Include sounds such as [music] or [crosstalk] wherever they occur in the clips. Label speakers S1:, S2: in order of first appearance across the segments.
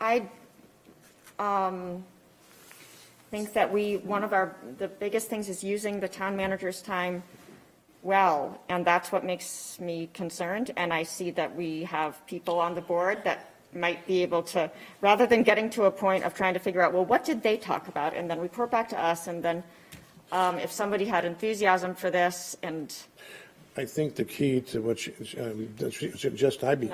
S1: I um, think that we, one of our, the biggest things is using the town manager's time well, and that's what makes me concerned. And I see that we have people on the board that might be able to, rather than getting to a point of trying to figure out, well, what did they talk about? And then report back to us, and then um, if somebody had enthusiasm for this, and
S2: I think the key to what she, um, that she suggest I be,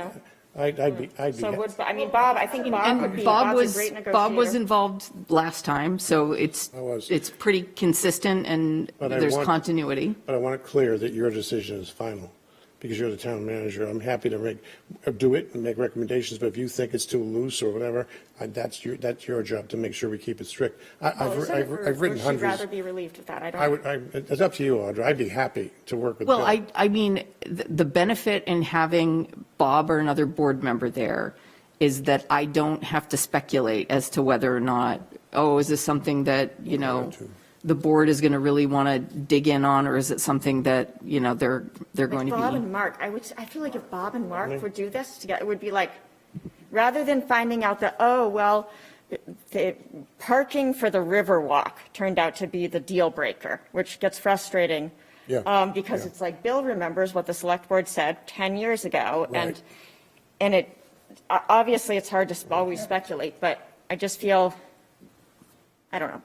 S2: I'd, I'd be, I'd be.
S1: so would, I mean, Bob, I think Bob would
S3: And
S1: be,
S3: Bob
S1: Bob's a
S3: was,
S1: great
S3: Bob was
S1: negotiator.
S3: involved last time, so it's,
S2: I was.
S3: it's pretty consistent and
S2: But I
S3: there's
S2: want-
S3: continuity.
S2: But I want it clear that your decision is final, because you're the town manager. I'm happy to make, uh, do it and make recommendations, but if you think it's too loose or whatever, I- that's your, that's your job to make sure we keep it strict. I-
S1: Well,
S2: I've,
S1: sort
S2: I've
S1: of, or-
S2: I've written
S1: or she'd rather
S2: hundreds.
S1: be relieved of that, I don't.
S2: I would, I, it's up to you, Audra. I'd be happy to work with Bill.
S3: Well, I, I mean, th- the benefit in having Bob or another board member there is that I don't have to speculate as to whether or not, oh, is this something that, you know,
S2: too.
S3: the board is going to really want to dig in on, or is it something that, you know, they're, they're going
S1: If Bob
S3: to
S1: and
S3: be?
S1: Mark, I would, I feel like if Bob and
S2: Mm-hmm.
S1: Mark would do this together, it would be like, rather than finding out that, oh, well, the parking for the Riverwalk turned out to be the deal breaker, which gets frustrating.
S2: Yeah,
S1: um, Because
S2: yeah.
S1: it's like, Bill remembers what the select board said 10 years ago, and,
S2: Right.
S1: and it, o- obviously, it's hard to sp- always speculate, but I just feel, I don't know.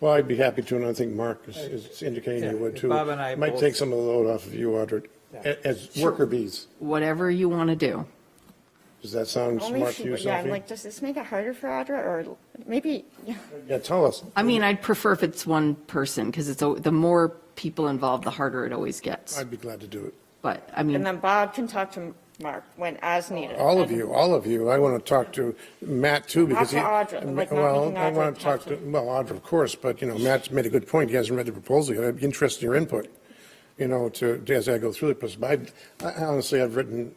S2: Well, I'd be happy to, and I think Mark is- is indicating you would
S4: Yeah,
S2: too.
S4: Bob and I
S2: Might
S4: both-
S2: take some of the load off of you, Audra, a- as worker bees.
S3: Whatever you want to do.
S2: Does that sound
S1: Only
S2: smart
S1: if
S2: to
S1: she-
S2: you,
S1: Yeah, I'm
S2: Sophie?
S1: like, does this make it harder for Audra, or maybe, yeah.
S2: Yeah, tell us.
S3: I mean, I'd prefer if it's one person, because it's, al- the more people involved, the harder it always gets.
S2: I'd be glad to do it.
S3: But, I
S1: And um,
S3: mean,
S1: then Bob can talk to Mark when, as needed.
S2: All of you, all of you. I want to talk to Matt too because he.
S1: Not to Audra, like, not
S2: Well,
S1: making
S2: I
S1: Audra
S2: want to
S1: talk
S2: talk
S1: to-
S2: to, well, Audra, of course, but you know, Matt's made a good point. He hasn't read the proposal yet. I'd be interested in your input, you know, to, as I go through the process. But I I honestly, I've written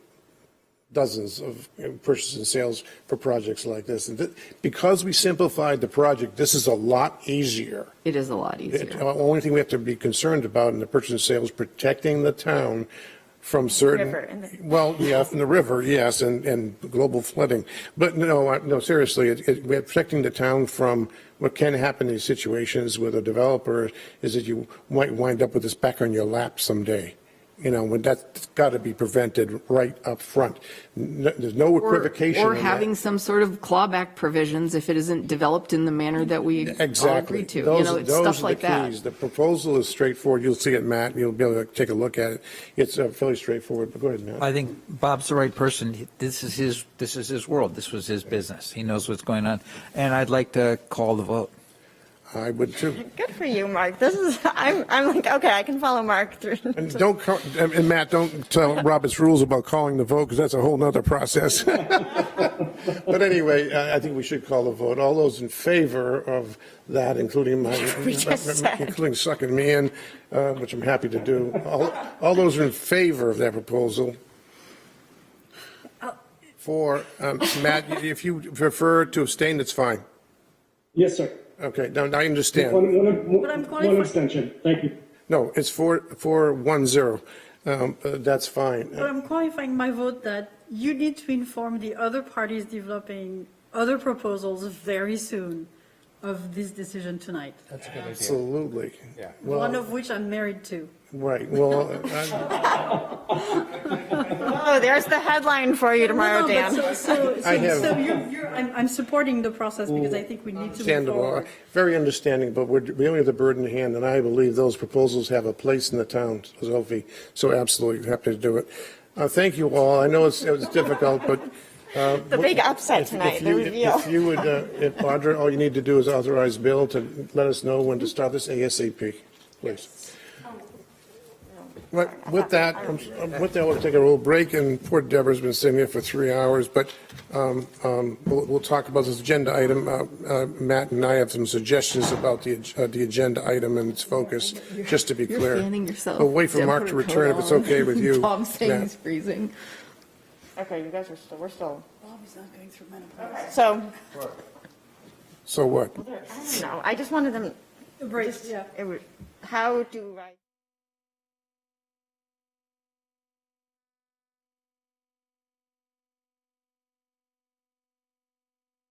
S2: dozens of you know, purchase and sales for projects like this. And th- because we simplified the project, this is a lot easier.
S3: it is a lot
S2: It- The
S3: easier.
S2: only thing we have to be concerned about in the purchase and sale is protecting the town from
S1: River and the-
S2: certain, [laughs] well, yeah, from the river, yes, and, and global flooding. But no, I- no, seriously, it, it, we're protecting the town from what can happen in these situations with a developer is that you might wind up with this back on your lap someday. You know, when that's got to be prevented right up front. N- There's no
S3: Or,
S2: equivocation.
S3: or
S2: in that.
S3: having some sort of clawback provisions if it isn't developed in the manner that we all
S2: Exactly.
S3: agree to. You
S2: Those-
S3: know, it's
S2: those are
S3: stuff
S2: the
S3: like that.
S2: keys. The proposal is straightforward. You'll see it, Matt. You'll be able to take a look at it. It's uh, fairly straightforward, but go ahead, Matt.
S4: I think Bob's the right person. This is his, this is his world. This was his business. He knows what's going on. And I'd like to call the vote.
S2: I would too.
S1: Good for you, Mark. This is, I'm, I'm like, okay, I can follow Mark through.
S2: And don't, call- and and Matt, don't tell Robert's rules about calling the vote because that's a whole
S1: [laughs]
S2: nother process. But anyway, I I think we should call the vote. All those in favor of that, including my,
S1: [laughs] We just said.
S2: including sucking me in, uh, which I'm happy to do. All, all those in favor of that proposal?
S1: Oh.
S2: For, um, Matt, if you prefer to abstain, that's fine.
S5: Yes, sir.
S2: Okay, now, now I
S5: One,
S2: understand.
S5: one,
S1: But I'm
S5: one,
S1: calling for-
S5: extension. Thank you.
S2: No, it's four, four, one, zero. Um, uh, that's fine.
S6: But I'm qualifying my vote that you need to inform the other parties developing other proposals very soon of this decision tonight,
S2: Absolutely. Yeah.
S6: one
S2: Well,
S6: of which I'm married to.
S2: right,
S6: [laughs]
S2: well, I-
S1: Oh, there's the headline for you tomorrow,
S6: No, no, but
S1: Dan.
S6: So,
S1: [laughs]
S6: so,
S2: I have-
S6: so- so you're, you're, I'm, I'm supporting the process because I think we need to move
S2: Understandable,
S6: forward.
S2: very understanding, but we're, we only have the bird in hand, and I believe those proposals have a place in the town, Sophie, so absolutely happy to do it. Uh, thank you all, I know it's, it was difficult, but. uh,
S1: The big upset
S2: if- if
S1: tonight, the
S2: you-
S1: reveal.
S2: If you would, uh, if Audra, all you need to do is authorize Bill to let us know when to start this ASAP, please. Right, with that, um, with that, we'll take a little break, and poor Deborah's been sitting here for three hours, but um, um, we'll, we'll talk about this agenda item. Uh, uh, Matt and I have some suggestions about the, ag- uh, the agenda item and its focus, just to be
S3: You're
S2: clear.
S3: fanning yourself.
S2: We'll wait for
S3: Don't
S2: Mark
S3: put
S2: to
S3: a coat
S2: return if it's
S3: on.
S2: okay
S3: [laughs]
S2: with you.
S3: Tom's saying
S2: Matt.
S3: he's freezing.
S1: Okay, you guys are still, we're still,
S6: Bob's not going through menopause.
S1: so,
S2: So what?
S1: I don't know, I just wanted them,
S6: Right, yeah.
S1: it was, how do I?